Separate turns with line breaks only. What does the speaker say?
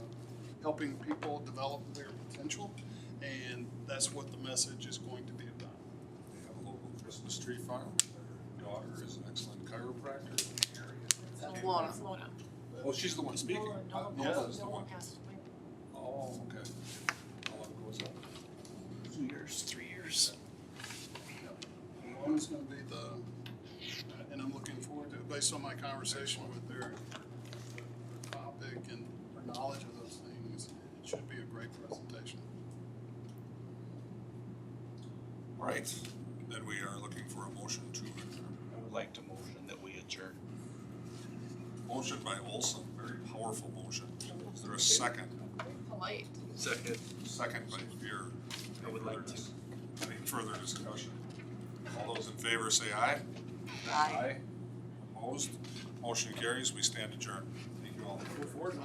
helping people develop their potential, and that's what the message is going to be about.
They have a local Christmas tree farm. Their daughter is an excellent chiropractor in the area.
It's Lona. Lona.
Oh, she's the one speaking.
Nolan-
Uh,
Nolan-
Nola
Yeah.
is the
Nolan
one.
passed away.
Oh, okay. How long ago was that?
Two years, three years. One's gonna be the, and I'm looking forward to, it based on my conversation with their topic and her knowledge of those things, it should be a great presentation.
All Right. Then we are looking for a motion to adjourn.
I would like to motion that we adjourn.
Motion by Olson, very powerful motion. Is there a second?
Polite.
Second.
Second by Beer.
I would like to.
Any further discussion? All those in favor say aye.
Aye.
Opposed? Motion carries. We stand adjourned. Thank you all.
Go forward.